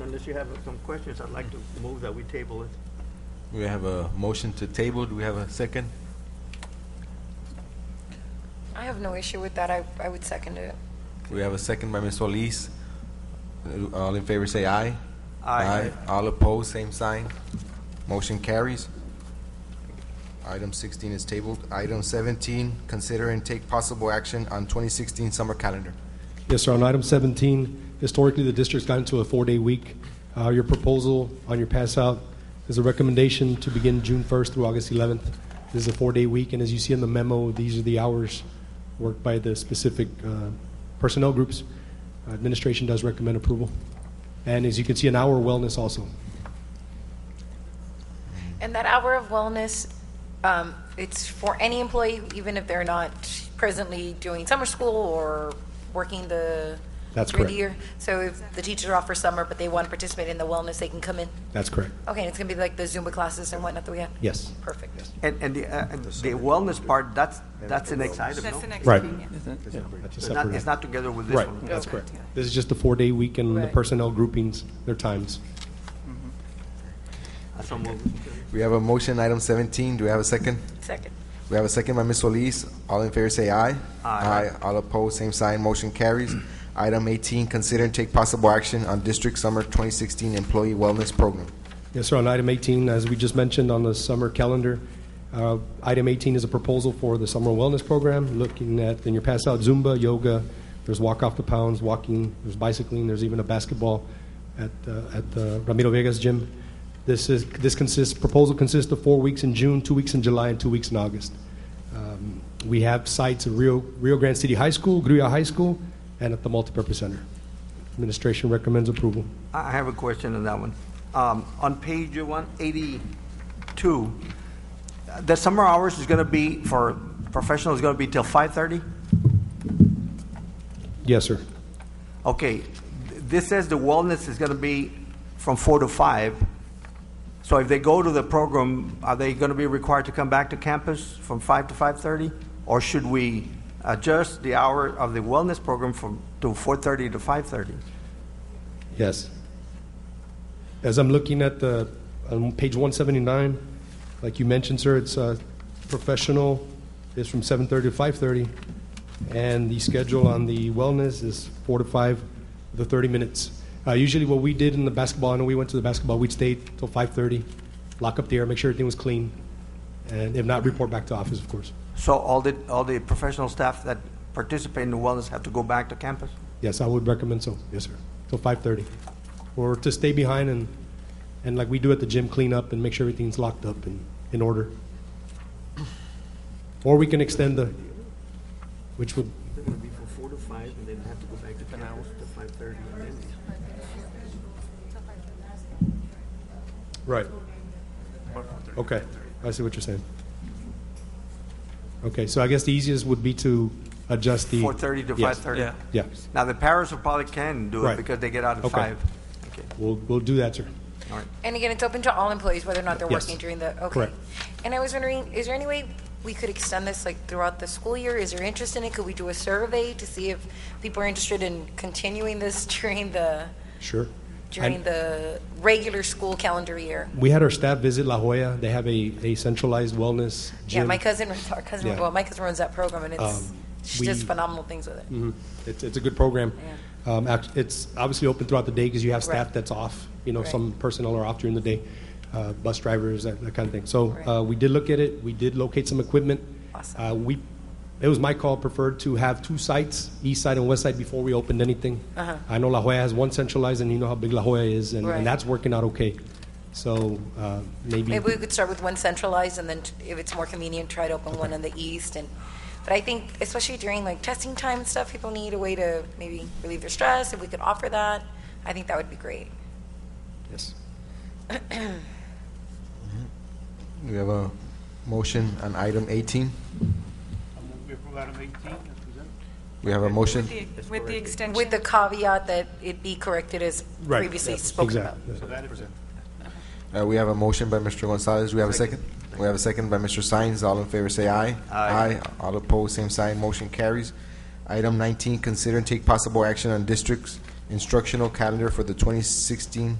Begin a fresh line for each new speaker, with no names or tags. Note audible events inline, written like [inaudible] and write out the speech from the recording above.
unless you have some questions, I'd like to move that we table it.
We have a motion to table. Do we have a second?
I have no issue with that. I, I would second it.
We have a second by Ms. Solis. Uh, All in favor say aye.
Aye.
All opposed, same sign. Motion carries. Item 16 is tabled. Item 17, consider and take possible action on 2016 summer calendar.
Yes, sir. On item 17, historically, the district's gotten to a four-day week. Uh, Your proposal on your pass-out is a recommendation to begin June 1st through August 11th. This is a four-day week, and as you see in the memo, these are the hours worked by the specific uh, personnel groups. Administration does recommend approval. And as you can see, an hour wellness also.
And that hour of wellness, um, it's for any employee, even if they're not presently doing summer school or working the.
That's
through the year.
correct.
So if the teachers are off for summer, but they want to participate in the wellness, they can come in.
That's correct.
Okay, and it's going to be like the Zumba classes and whatnot that we have?
Yes.
Perfect.
And, and the, uh, and the wellness part, that's, that's the next item, no?
That's the next
Right.
thing, yeah.
Yeah, that's a
It's not,
separate-
it's not together with this
Right,
one.
that's correct. This is just a four-day week and the
Right.
personnel groupings, their times.
So move.
We have a motion, item 17. Do we have a second?
Second.
We have a second by Ms. Solis. All in favor say aye.
Aye.
All opposed, same sign. Motion carries. [clears throat] Item 18, consider and take possible action on district summer 2016 employee wellness program.
Yes, sir. On item 18, as we just mentioned on the summer calendar, uh, item 18 is a proposal for the summer wellness program, looking at, in your pass out, Zumba, yoga, there's walk off the pounds, walking, there's bicycling, there's even a basketball at, uh, at the Ramiro Vegas gym. This is, this consists, proposal consists of four weeks in June, two weeks in July, and two weeks in August. Um, We have sites at Rio, Rio Grande City High School, Gruya High School, and at the Multipurpose Center. Administration recommends approval.
I I have a question on that one. Um, On page 182, uh, the summer hours is going to be, for professionals, is going to be till 5:30?
Yes, sir.
Okay, th- this says the wellness is going to be from 4 to 5. So if they go to the program, are they going to be required to come back to campus from 5 to 5:30? Or should we adjust the hour of the wellness program from, to 4:30 to 5:30?
Yes. As I'm looking at the, on page 179, like you mentioned, sir, it's uh, professional is from 7:30 to 5:30, and the schedule on the wellness is 4 to 5, the 30 minutes. Uh, Usually what we did in the basketball, I know we went to the basketball, we'd stay till 5:30, lock up the air, make sure everything was clean, and if not, report back to office, of course.
So all the, all the professional staff that participate in the wellness have to go back to campus?
Yes, I would recommend so. Yes, sir. Till five thirty, or to stay behind and and like we do at the gym, clean up and make sure everything's locked up and in order. Or we can extend the, which would
It would be from four to five, and then have to go back to campus to five thirty, and then.
right. Okay, I see what you're saying. Okay, so I guess the easiest would be to adjust the
4:30 to
Yes.
5:30?
Yeah.
Yeah,
Now, the parents will probably can do it
Right.
because they get out at
Okay.
five. Okay,
we'll we'll do that, sir.
all right.
And again, it's open to all employees, whether or not they're
Yes.
working during the, okay.
Correct.
And I was wondering, is there any way we could extend this, like, throughout the school year? Is there interest in it? Could we do a survey to see if people are interested in continuing this [laughs] during the,
Sure.
during
And-
the regular school calendar year?
We had our staff visit La Jolla. They have a, a centralized wellness gym.
Yeah, my cousin, runs our cousin,
Yeah.
well, my cousin runs that program, and it's,
Um,
she does
we-
phenomenal things with it.
Mhm. It's, it's a good program. Um, act- It's obviously open throughout the day because you have staff
Right.
that's off, you know,
Right.
some personnel are off during the day, uh, bus drivers, that that kind of thing. So
Right.
uh, we did look at it, we did locate some equipment.
Awesome.
Uh, We, it was my call preferred to have two sites, east side and west side, before we opened anything.
Uh-huh.
I know La Jolla has one centralized, and you know how big La Jolla is, and
Right.
and that's working out okay. So uh, maybe.
Maybe we could start with one centralized, and then t- if it's more convenient, try to open one in the east, and, but I think, especially during like testing time and stuff, people need a way to maybe relieve their stress, if we could offer that, I think that would be great.
Yes.
We have a motion on item 18.
I move we approve item 18 as presented.
We have a motion.
With the- With the extension.
With the caveat that it be corrected as
Right.
previously spoken about.
Exactly.
So that is it.
Uh, we have a motion by Mr. Gonzalez. We have a second. We have a second by Mr. Sines. All in favor say aye. Aye. All opposed, same sign. Motion carries. Item 19, consider and take possible action on district's instructional calendar for the 2016